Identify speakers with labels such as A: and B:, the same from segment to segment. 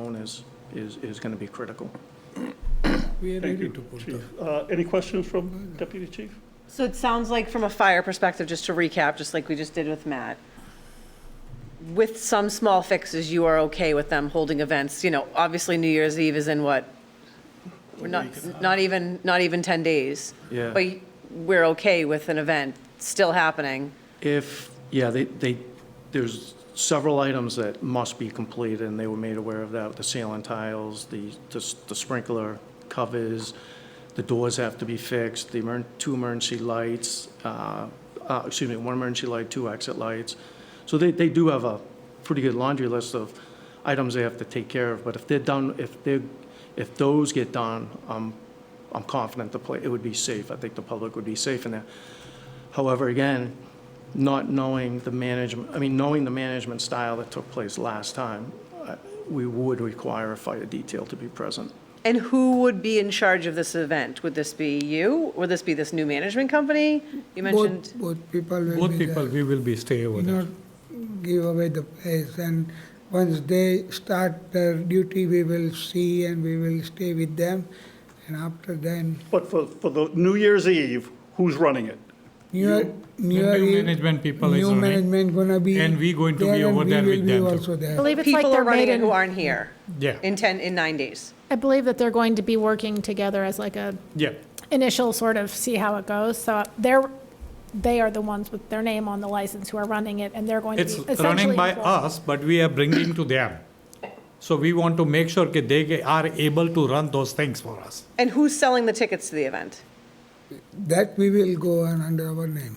A: zone is, is, is going to be critical.
B: We are
C: Thank
B: ready
C: you,
B: to put the,
C: Chief. Uh, Any questions from Deputy Chief?
D: So it sounds like from a fire perspective, just to recap, just like we just did with Matt, with some small fixes, you are okay with them holding events, you know, obviously New Year's Eve is in what? We're not, not even, not even 10 days.
A: Yeah.
D: But we're okay with an event still happening.
A: If, yeah, they, they, there's several items that must be completed, and they were made aware of that, the ceiling tiles, the, the s- the sprinkler covers, the doors have to be fixed, the emer, two emergency lights, uh, uh, excuse me, one emergency light, two exit lights. So they, they do have a pretty good laundry list of items they have to take care of, but if they're done, if they're, if those get done, I'm, I'm confident the pla, it would be safe. I think the public would be safe in there. However, again, not knowing the management, I mean, knowing the management style that took place last time, uh, we would require a fire detail to be present.
D: And who would be in charge of this event? Would this be you? Would this be this new management company? You mentioned,
E: Both, both people will
B: both
E: be there.
B: people, we will be stay over
E: Do
B: there.
E: not give away the place, and once they start their duty, we will see and we will stay with them. And after then,
C: But for, for the New Year's Eve, who's running it?
E: new, new.
B: new
E: year-
B: management people is
E: New
B: running,
E: management gonna be.
B: and we going to be
E: there, and
B: over there
E: we will
B: with
E: be
B: them too.
E: also there.
F: I believe it's like
D: people are
F: their
D: running it who
F: maiden,
D: aren't here
B: Yeah,
D: in 10, in nine days.
F: I believe that they're going to be working together as like a
B: yeah.
F: initial sort of see how it goes. So they're, they are the ones with their name on the license who are running it and they're going to be
B: It's
F: essentially.
B: running by
F: involved.
B: us, but we are bringing to them. So we want to make sure that they ge- are able to run those things for us.
D: And who's selling the tickets to the event?
E: That we will go on under our name.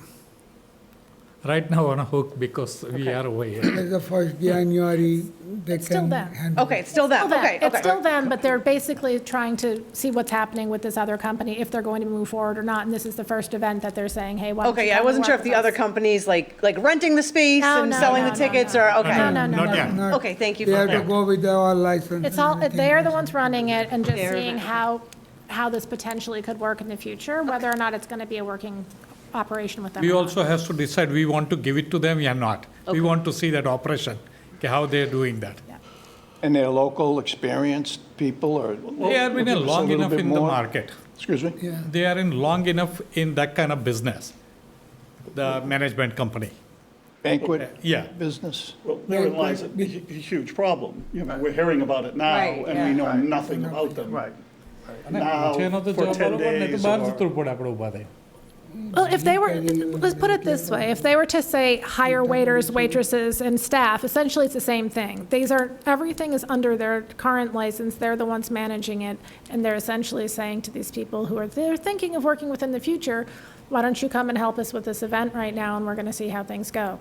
B: Right now on a hook because we are over here.
E: As the first January, they
F: It's still
E: can.
F: them.
E: handle
D: Okay, it's still
F: Still
D: them,
F: them.
D: okay, okay.
F: It's still them, but they're basically trying to see what's happening with this other company, if they're going to move forward or not. And this is the first event that they're saying, hey, why don't you
D: Okay, yeah, I
F: come
D: wasn't sure
F: work
D: if
F: with
D: the other
F: us?
D: companies like, like renting the space
F: No,
D: and
F: no,
D: selling
F: no,
D: the
F: no,
D: tickets
F: no.
D: or, okay.
F: no, no,
B: Not
F: no.
B: yet.
E: Not-
D: Okay, thank you
E: They
D: for
E: have to
D: that.
E: go with our license.
F: It's all,
E: and everything.
F: they are the ones running it and just
D: They're
F: seeing
D: the-
F: how, how this potentially could work in the future, whether or not it's going to be a working operation with them.
B: We
F: or not.
B: also has to decide, we want to give it to them or not. We want to see that operation, okay, how they're doing that.
G: And they're local, experienced people, or?
B: They have been
G: Give us
B: in
G: a
B: long
G: little
B: enough
G: bit
B: in the
G: more.
B: market.
G: Excuse me?
E: Yeah.
B: They are in long enough in that kind of business, the management company.
G: Banquet?
B: Yeah.
G: Business?
C: Well, therein lies a a huge problem. You know, we're hearing about it now,
D: Right,
C: and we
D: yeah.
C: know nothing about them. Right. Now, for 10 days or-
F: Well, if they were, let's put it this way, if they were to say hire waiters, waitresses, and staff, essentially it's the same thing. These are, everything is under their current license, they're the ones managing it, and they're essentially saying to these people who are, they're thinking of working within the future, why don't you come and help us with this event right now, and we're gonna see how things go.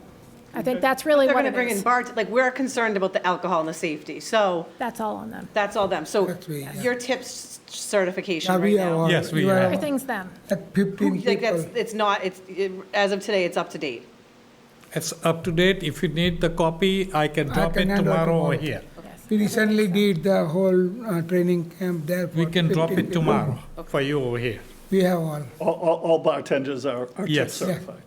F: I think that's really
D: They're
F: what
D: gonna
F: it
D: bring in
F: is.
D: bart, like, we're concerned about the alcohol and the safety, so
F: That's all on them.
D: that's all them. So
E: That's me, yeah.
D: your tips certification
E: Yeah,
D: right
E: we are all-
D: now.
B: Yes, we
E: you
B: are.
F: Everything's them.
E: At fifteen
D: Like, that's,
E: people.
D: it's not, it's, it- as of today, it's up to date.
B: It's up to date. If you need the copy, I can
E: I
B: drop
E: can
B: it
E: hand out
B: tomorrow over
E: tomorrow.
B: here.
E: We recently did the whole uh, training camp there for
B: We can drop
E: 15
B: it
E: people.
B: tomorrow for you over here.
E: We have all.
C: All, all- all bartenders are are tip
B: Yes.
C: certified.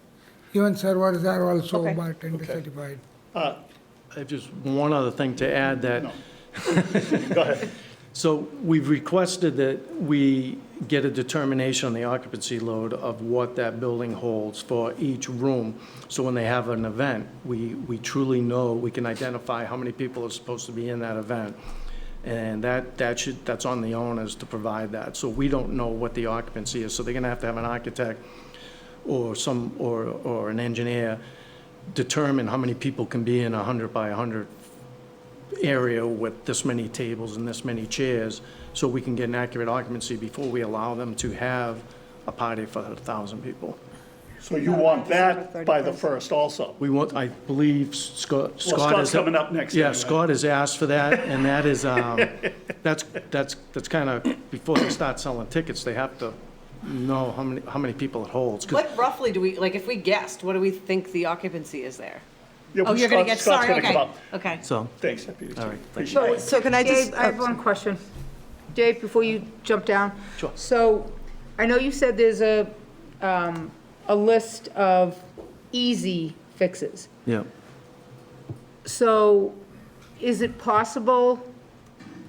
E: Even servers are also
D: Okay.
E: bartender
C: Okay.
E: certified.
A: I have just one other thing to add that.
C: Go ahead.
A: So we've requested that we get a determination on the occupancy load of what that building holds for each room. So when they have an event, we, we truly know, we can identify how many people are supposed to be in that event. And that, that should, that's on the owners to provide that. So we don't know what the occupancy is. So they're gonna have to have an architect or some, or, or an engineer determine how many people can be in a hundred by hundred area with this many tables and this many chairs, so we can get an accurate occupancy before we allow them to have a party for a thousand people.
C: So you want that by the first also?
A: We want, I believe Scott, Scott is.
C: Scott's coming up next
A: Yeah,
C: anyway.
A: Scott has asked for that, and that is, um, that's, that's, that's kind of, before they start selling tickets, they have to know how many, how many people it holds. 'cause-
D: What roughly do we, like, if we guessed, what do we think the occupancy is there?
C: Yeah,
D: Oh,
C: but
D: you're gonna
C: Scott-
D: get,
C: Scott's
D: sorry,
C: gonna come up.
D: okay, okay.
A: So,
C: Thanks, Deputy Chief.
A: all right, thank you.
C: Appreciate it.
H: So can I just? oh,
I: Dave, I
D: oh,
I: have one question. Dave, before you jump down.
A: Sure.
I: So, I know you said there's a, um, a list of easy fixes.
A: yeah.
I: So, is it possible